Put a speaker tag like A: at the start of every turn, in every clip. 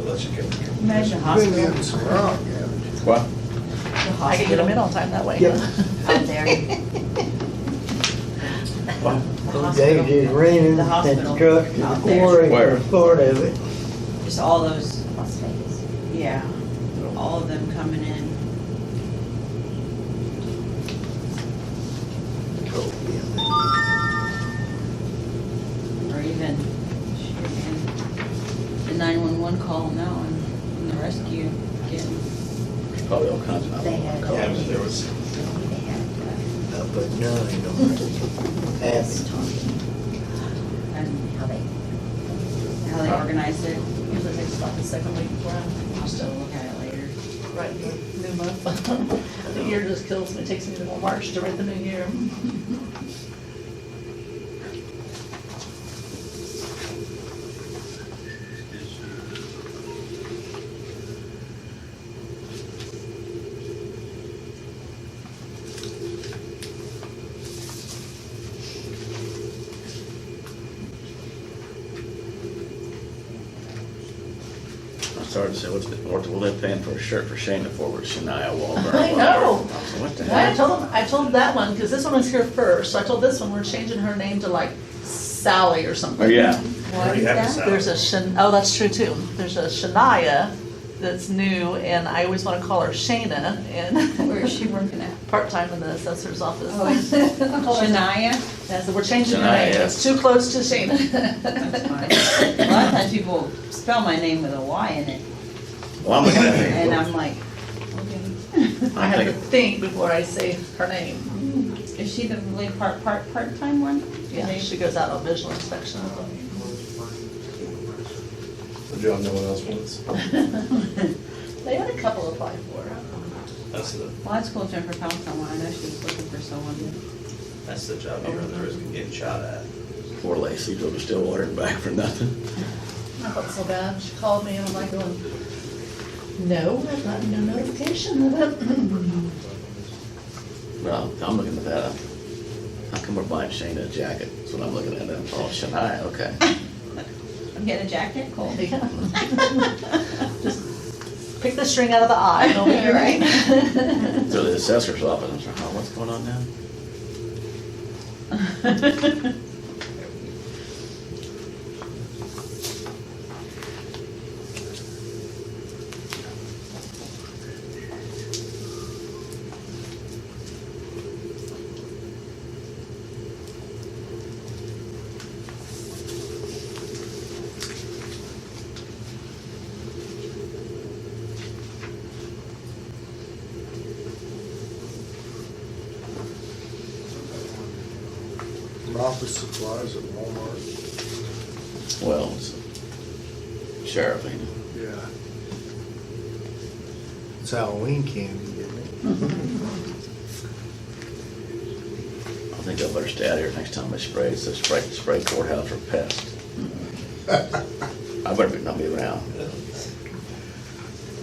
A: unless you can.
B: Imagine a hospital.
A: Bring in some rock, haven't you?
C: What?
B: I can get them in all time that way.
D: Yep.
E: Out there.
D: Days is raining
E: The
D: and
E: hospital.
D: trucks and
E: Out there.
D: quarry
C: Where?
D: for part of it.
E: Just all those,
F: Las Vegas.
E: yeah, all of them coming in. Or even, shit, man, the nine-one-one call now and and the rescue getting.
C: Probably all kinds of.
F: They had-
A: Yeah, but there was,
F: They had, uh,
D: I put nine on
B: Hmm.
D: it.
F: they
D: Half
F: was talking,
E: and
F: how they,
E: how they organize it.
B: Usually takes about the second week before I'm
E: I'll still look at it later.
B: writing the new month. The year just kills me, It takes me to March to write the new year.
C: I started to say, what's, the- what what are they paying for a shirt for Shana for, with Shania Wahlberg?
B: I know.
C: So What the
B: I
C: hell?
B: told them, I told that one, because this one was here first, so I told this one, we're changing her name to like Sally or
C: Oh,
B: something.
C: yeah,
E: What is
A: have
E: that?
A: to sign.
B: There's a Shan, oh, that's true too. There's a Shania that's new, and I always want to call her Shana,
E: Where
B: and
E: is she working at?
B: part-time in the assessor's office.
E: Oh, is it? Shania?
B: Yeah, so we're changing her name,
C: Shania.
B: it's too close to Shana.
E: That's fine. A lot of times people spell my name with a Y in it,
C: well, I'm looking
E: and
C: at it.
E: I'm like,
B: I have to
C: think-
B: think before I say her name.
E: is she the really part, part, part-time one?
B: Yeah, she goes out on visual inspection.
G: The job no one else wants.
B: They had a couple apply for it.
A: that's the,
E: Well, that's cool, Jennifer found someone, I know she was looking for someone.
A: that's the job you run the risk of getting shot at.
C: Poor Lacey, drove to Stillwater and back for nothing.
B: I felt so bad, she called me and I'm like going, no, I've gotten no notification of it.
C: Well, I'm looking at that, how come we're buying Shana a jacket? That's what I'm looking at, oh, Shania, okay.
E: I'm getting a jacket, cool.
B: Yeah. Just Pick the string out of the eye, don't be right.
C: So the assessor's office, I'm like, oh, what's going on now?
A: Office supplies at Walmart.
C: Well, it's sheriff, ain't it?
A: Yeah.
D: It's Halloween candy, isn't it?
C: I think I better stay out here next time I spray, it says spray, spray courthouse for pest. I better be- not be around.
F: you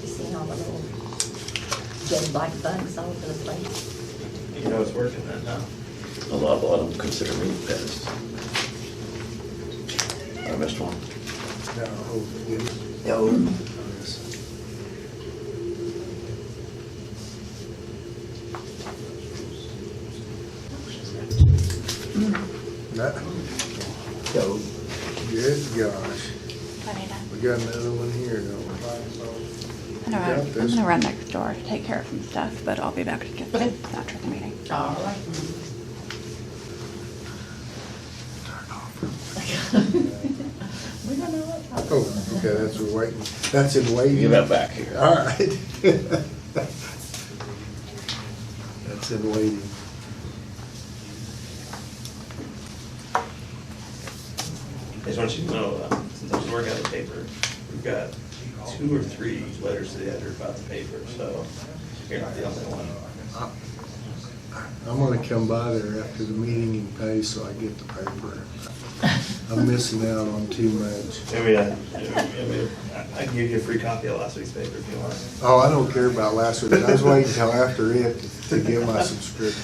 F: seen all the little dead black bugs all over the place.
A: You know it's working that now.
C: A lot, a lot of them consider me a pest. I missed one.
A: No, hopefully.
D: No,
A: That,
D: no.
A: good gosh,
H: Funny enough.
A: we got another one here, don't we?
H: I'm gonna
A: You
H: run-
A: got
H: I'm
A: this.
H: gonna run next door to take care of some stuff, but I'll be back to get them after the meeting.
B: All right. We don't know what happened.
A: Oh, okay, that's a waiting, that's in waiting.
C: Get that back here.
A: All right. That's in waiting.
I: I just want you to know, uh, since I was working on the paper, we've got two or three letters to the editor about the paper, so you're not the only one.
A: I'm gonna come by there after the meeting and pay so I get the paper. I'm missing out on too much.
I: Maybe, uh, maybe- I I can give you a free copy of last week's paper if you want.
A: Oh, I don't care about last week, I was waiting until after it to get my subscription.